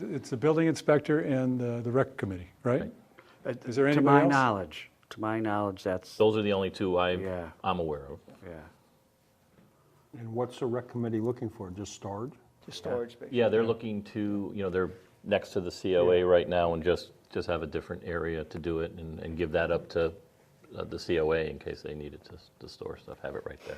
it's the building inspector and uh, the rec committee, right? Is there Uh, To anybody my else? knowledge, to my knowledge, that's, Those are the only two I, Yeah. I'm aware of. yeah. And what's the rec committee looking for, just storage? Just storage space. Yeah, they're looking to, you know, they're next to the COA right now and just, just have a different area to do it and, and give that up to uh, the COA in case they needed to, s- to store stuff, have it right there.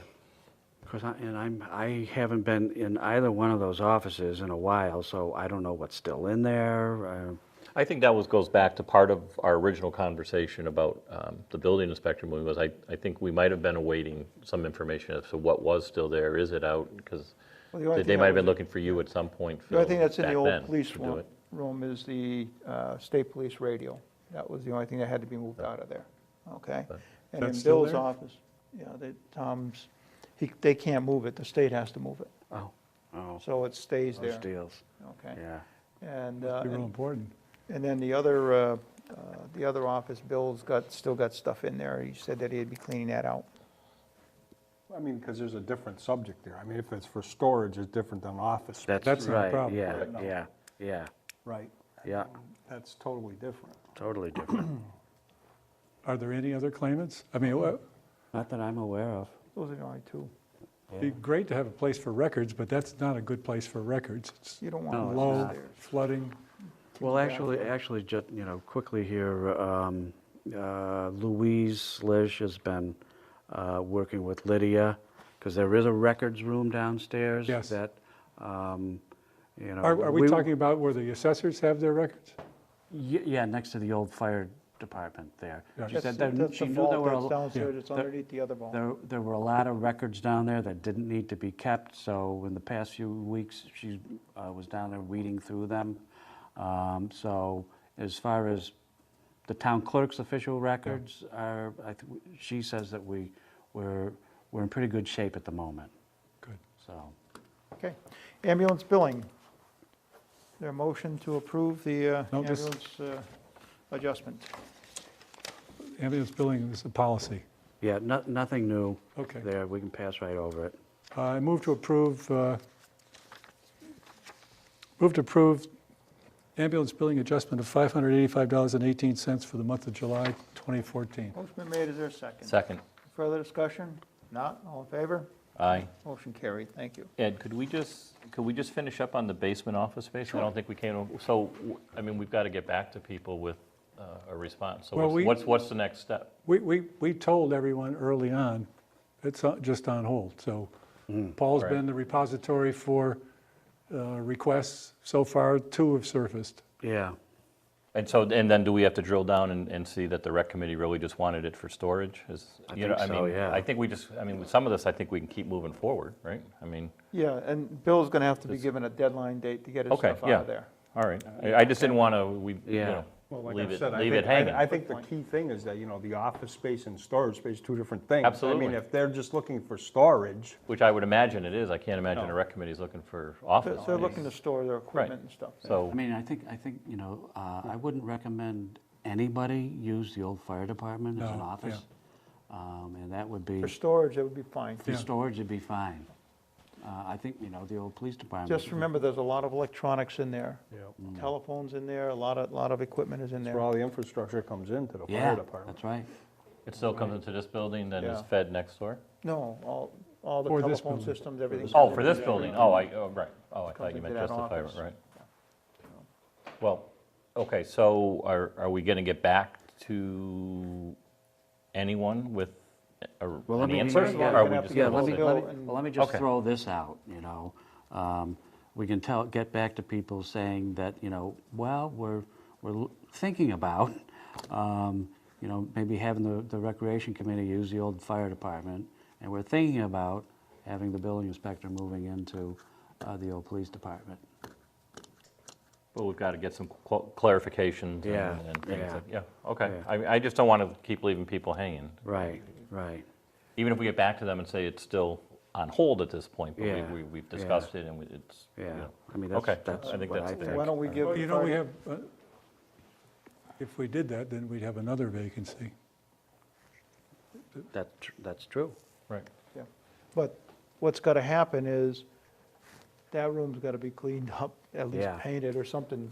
Because I, and I'm, I haven't been in either one of those offices in a while, so I don't know what's still in there. uh, I think that was, goes back to part of our original conversation about um, the building inspector moving, was I, I think we might have been awaiting some information as to what was still there, is it out? Because Well, the only they thing might I have been was- looking for you at some point, The only Phil, thing that's in the back old then police to do room- it. room is the uh, state police radio. That was the only thing that had to be moved out of there, okay? And in That's still Bill's there? office, yeah, they, Tom's, he, they can't move it, the state has to move it, Oh, oh, so it stays those there, deals, okay? yeah. And, uh, Be real and- important. and then the other, uh, uh, the other office, Bill's got, still got stuff in there, he said that he'd be cleaning that out. I mean, because there's a different subject there. I mean, if it's for storage, it's different than office. space. That's not a right, problem. yeah, Right. yeah, yeah, Right. yeah, That's totally different. totally different. Are there any other claimants? I mean, it Not that I'm aware of. Those are the only two, would be great to have a place for records, but that's not a good place for records. It's you don't want No, them it's low, not. upstairs. flooding. Well, actually, actually, just, you know, quickly here, um, uh, Louise Lish has been uh, working with Lydia, because there is a records room downstairs. Yes. That, um, you know. Are are we talking about where the assessors have their records? Ye- Yeah, next to the old fire department there. Yeah. She That's, said there- that's she the knew there vault were a that's l- downstairs, it's there- underneath the other vault. There, there were a lot of records down there that didn't need to be kept, so in the past few weeks, she uh, was down there weeding through them. Um, So as far as the town clerk's official records are, I th- she says that we, we're, we're in pretty good shape at the moment, Good. so. Okay. Ambulance billing. There a motion to approve the uh, No, just- ambulance uh, adjustment? Ambulance billing is a policy. Yeah, no, nothing new Okay. there, we can pass right over it. Uh, I move to approve, uh, move to approve ambulance billing adjustment of $585.18 for the month of July 2014. Motion been made, is there a second? Second, Further discussion? Not, all in favor? aye. Motion carried, thank you. Ed, could we just, could we just finish up on the basement office space? I don't think we came, so, w- I mean, we've got to get back to people with uh, a response. So Well, we- what's- what's, what's the next step? We, we, we told everyone early on, it's on- just on hold, so Paul's Right. been the repository for uh, requests. So far, two have surfaced. Yeah, And so, and then do we have to drill down and, and see that the rec committee really just wanted it for storage? Is, I you know, think I so, mean, yeah. I think we just, I mean, with some of this, I think we can keep moving forward, right? I mean, Yeah, and Bill's going to have to be given a deadline date to get his okay, stuff yeah. out of there. All right. I I just didn't want to, we, you Yeah. know, Well, like leave I it, said, I leave it think- I- I hanging. think the key thing is that, you know, the office space and storage space, two different things. Absolutely. I mean, if they're just looking for storage, Which I would imagine it is. I can't imagine a rec committee's looking for They're- office They're looking to space. store their equipment and stuff. So, I mean, I think, I think, you know, uh, I wouldn't recommend anybody use the old fire department as an No, office. Um, And that would be. For storage, that would be fine. For storage, it'd be fine. Uh, I think, you know, the old police department. Just remember, there's a lot of electronics in there. Yep. Mm. Telephones in there, a lot of, lot of equipment is in that's where there. all the infrastructure comes into the Yeah, fire department. that's right. it still comes into this building, then is Yeah. fed next door? No, all, all the For this telephone building. systems, everything. Oh, for this building, oh, I, oh, right, oh, I Comes thought you meant into just that the fire, office. right. Well, okay, so are, are we gonna get back to anyone with a- Well, let an me- answer? First of all, or I'm are gonna we have just to Yeah, get gonna let me, hold it. let me, Bill and- well, let me just Okay. throw this out, you know. Um, We can tell, get back to people saying that, you know, well, we're, we're l- thinking about, um, you know, maybe having the, the recreation committee use the old fire department, and we're thinking about having the building inspector moving into uh, the old police department. Well, we've got to get some cl- clarifications Yeah, and and things, yeah. like- yeah, okay. Yeah. I, I just don't want to keep leaving people hanging. Right, right. Even if we get back to them and say it's still on hold at this point, but we- Yeah, we, we've yeah. discussed it and we- it's, you Yeah, know. I mean, Okay, that's, that's I think what that's I fair. think. Why don't we give? Well, the you know, fire- we have, uh, if we did that, then we'd have another vacancy. That, tr- that's true. Right. Yeah, But what's got to happen is, that room's got to be cleaned up, at least Yeah. painted or something